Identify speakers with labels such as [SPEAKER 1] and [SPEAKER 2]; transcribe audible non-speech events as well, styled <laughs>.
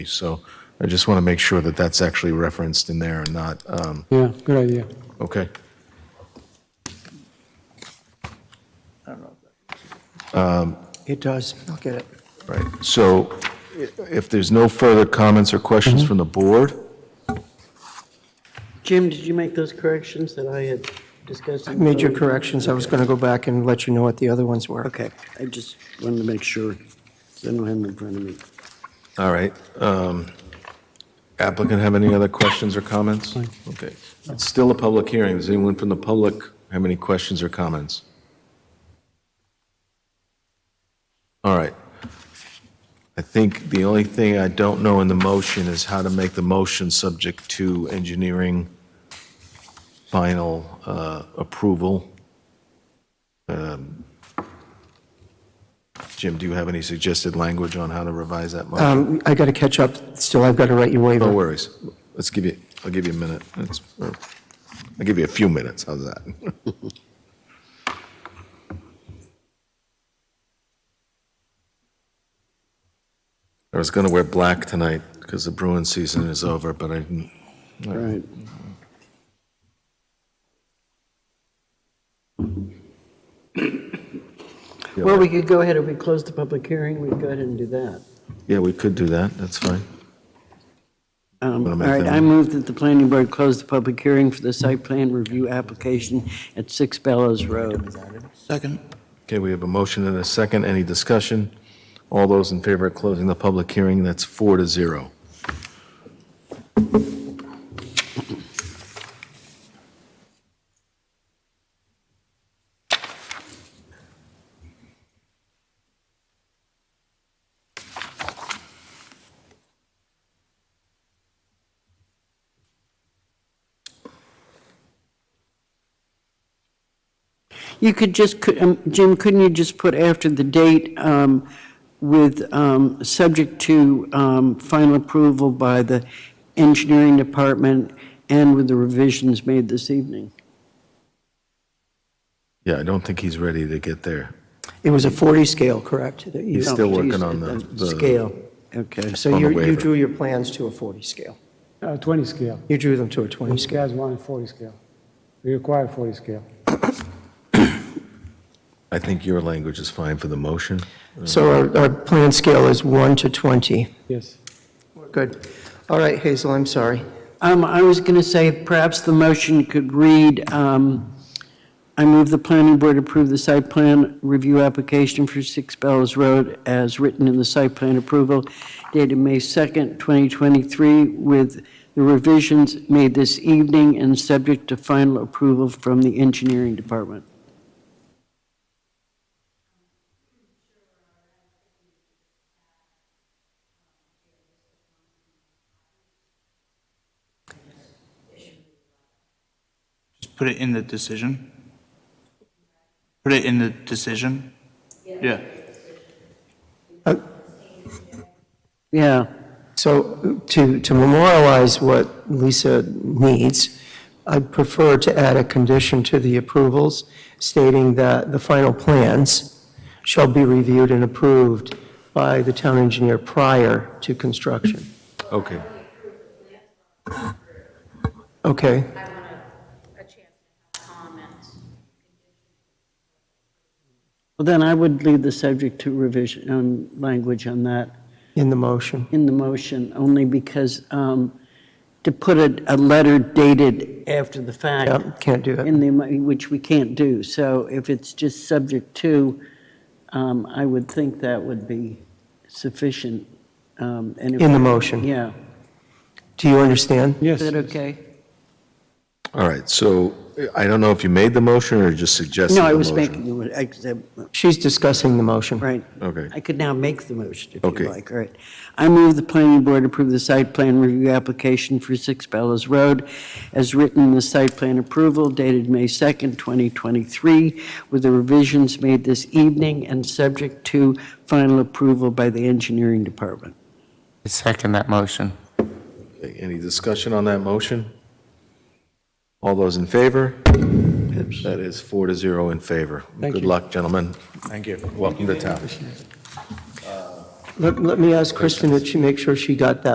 [SPEAKER 1] So I just want to make sure that that's actually referenced in there and not, um,
[SPEAKER 2] Yeah, good idea.
[SPEAKER 1] okay.
[SPEAKER 3] It does. I'll get it.
[SPEAKER 1] Right, so i- if there's no further comments or questions from the board,
[SPEAKER 4] Jim, did you make those corrections that I had discussed? in
[SPEAKER 3] Made your
[SPEAKER 4] earlier?
[SPEAKER 3] corrections. I was going to go back and let you know what the other ones were.
[SPEAKER 4] Okay, I just wanted to make sure, 'cause I don't have them in front of me.
[SPEAKER 1] all right. um, Applicant have any other questions or comments? Okay, it's still a public hearing. Does anyone from the public have any questions or comments? All right. I think the only thing I don't know in the motion is how to make the motion subject to engineering final uh, approval. Um, Jim, do you have any suggested language on how to revise that motion?
[SPEAKER 3] Um, I got to catch up. Still, I've got to write your
[SPEAKER 1] No
[SPEAKER 3] waiver.
[SPEAKER 1] worries. Let's give you, I'll give you a minute. That's- or I'll give you a few minutes. How's that? <laughs> I was going to wear black tonight because the Bruin season is over, but I didn't.
[SPEAKER 4] All right. Well, we could go ahead, if we close the public hearing, we could go ahead and do that.
[SPEAKER 1] Yeah, we could do that. That's fine.
[SPEAKER 4] Um,
[SPEAKER 1] Wanna
[SPEAKER 4] All
[SPEAKER 1] make
[SPEAKER 4] right,
[SPEAKER 1] that
[SPEAKER 4] I
[SPEAKER 1] one?
[SPEAKER 4] move that the planning board close the public hearing for the site plan review application at 6 Bellows Road.
[SPEAKER 5] Second.
[SPEAKER 1] Okay, we have a motion and a second. Any discussion? All those in favor of closing the public hearing, that's four to zero.
[SPEAKER 4] You could just, cou- um, Jim, couldn't you just put after the date um, with, um, subject to um, final approval by the engineering department and with the revisions made this evening?
[SPEAKER 1] Yeah, I don't think he's ready to get there.
[SPEAKER 3] It was a 40 scale, correct? that you-
[SPEAKER 1] He's still
[SPEAKER 4] No,
[SPEAKER 1] working
[SPEAKER 4] geez,
[SPEAKER 1] on the- the-
[SPEAKER 4] Scale, okay.
[SPEAKER 3] So
[SPEAKER 1] on the
[SPEAKER 3] you you
[SPEAKER 1] waiver.
[SPEAKER 3] drew your plans to a 40 scale.
[SPEAKER 2] Uh, 20 scale.
[SPEAKER 3] You drew them to a 20
[SPEAKER 2] These
[SPEAKER 3] scale.
[SPEAKER 2] guys wanted 40 scale. We require 40 scale.
[SPEAKER 1] I think your language is fine for the motion.
[SPEAKER 3] So our, our plan scale is 1 to 20.
[SPEAKER 2] Yes.
[SPEAKER 3] Good. All right, Hazel, I'm sorry.
[SPEAKER 4] Um, I was going to say, perhaps the motion could read, um, I move the planning board approve the site plan review application for Six Bells Road as written in the site plan approval dated May 2nd, 2023, with the revisions made this evening and subject to final approval from the engineering department.
[SPEAKER 5] Just put it in the decision. Put it in the decision. Yeah.
[SPEAKER 4] Yeah,
[SPEAKER 3] So to, to memorialize what Lisa needs, I'd prefer to add a condition to the approvals stating that the final plans shall be reviewed and approved by the town engineer prior to construction.
[SPEAKER 1] Okay.
[SPEAKER 3] Okay,
[SPEAKER 6] I want a, a chance to have comments.
[SPEAKER 4] well, then I would leave the subject to revision, um, language on that.
[SPEAKER 3] in the motion.
[SPEAKER 4] in the motion, only because um, to put a, a letter dated after the
[SPEAKER 3] Yeah,
[SPEAKER 4] fact
[SPEAKER 3] can't do it.
[SPEAKER 4] in the, mo- which we can't do. So if it's just subject to, um, I would think that would be sufficient. In
[SPEAKER 3] In the motion.
[SPEAKER 4] Yeah.
[SPEAKER 3] Do you understand?
[SPEAKER 2] Yes.
[SPEAKER 4] Is that okay?
[SPEAKER 1] All right, so I don't know if you made the motion or just suggested the
[SPEAKER 4] No,
[SPEAKER 1] motion.
[SPEAKER 4] I was making, I said,
[SPEAKER 3] She's discussing the motion.
[SPEAKER 4] Right.
[SPEAKER 1] Okay.
[SPEAKER 4] I could now make the motion if
[SPEAKER 1] Okay.
[SPEAKER 4] you like, all right. I move the planning board approve the site plan review application for 6 Bellows Road as written in the site plan approval dated May 2nd, 2023, with the revisions made this evening and subject to final approval by the engineering department.
[SPEAKER 7] I Second that motion.
[SPEAKER 1] Any discussion on that motion? All those in favor? That is four to zero in favor. Good luck, gentlemen. Thank you. Welcome to town.
[SPEAKER 3] Let, let me ask Kristen that she make sure she got that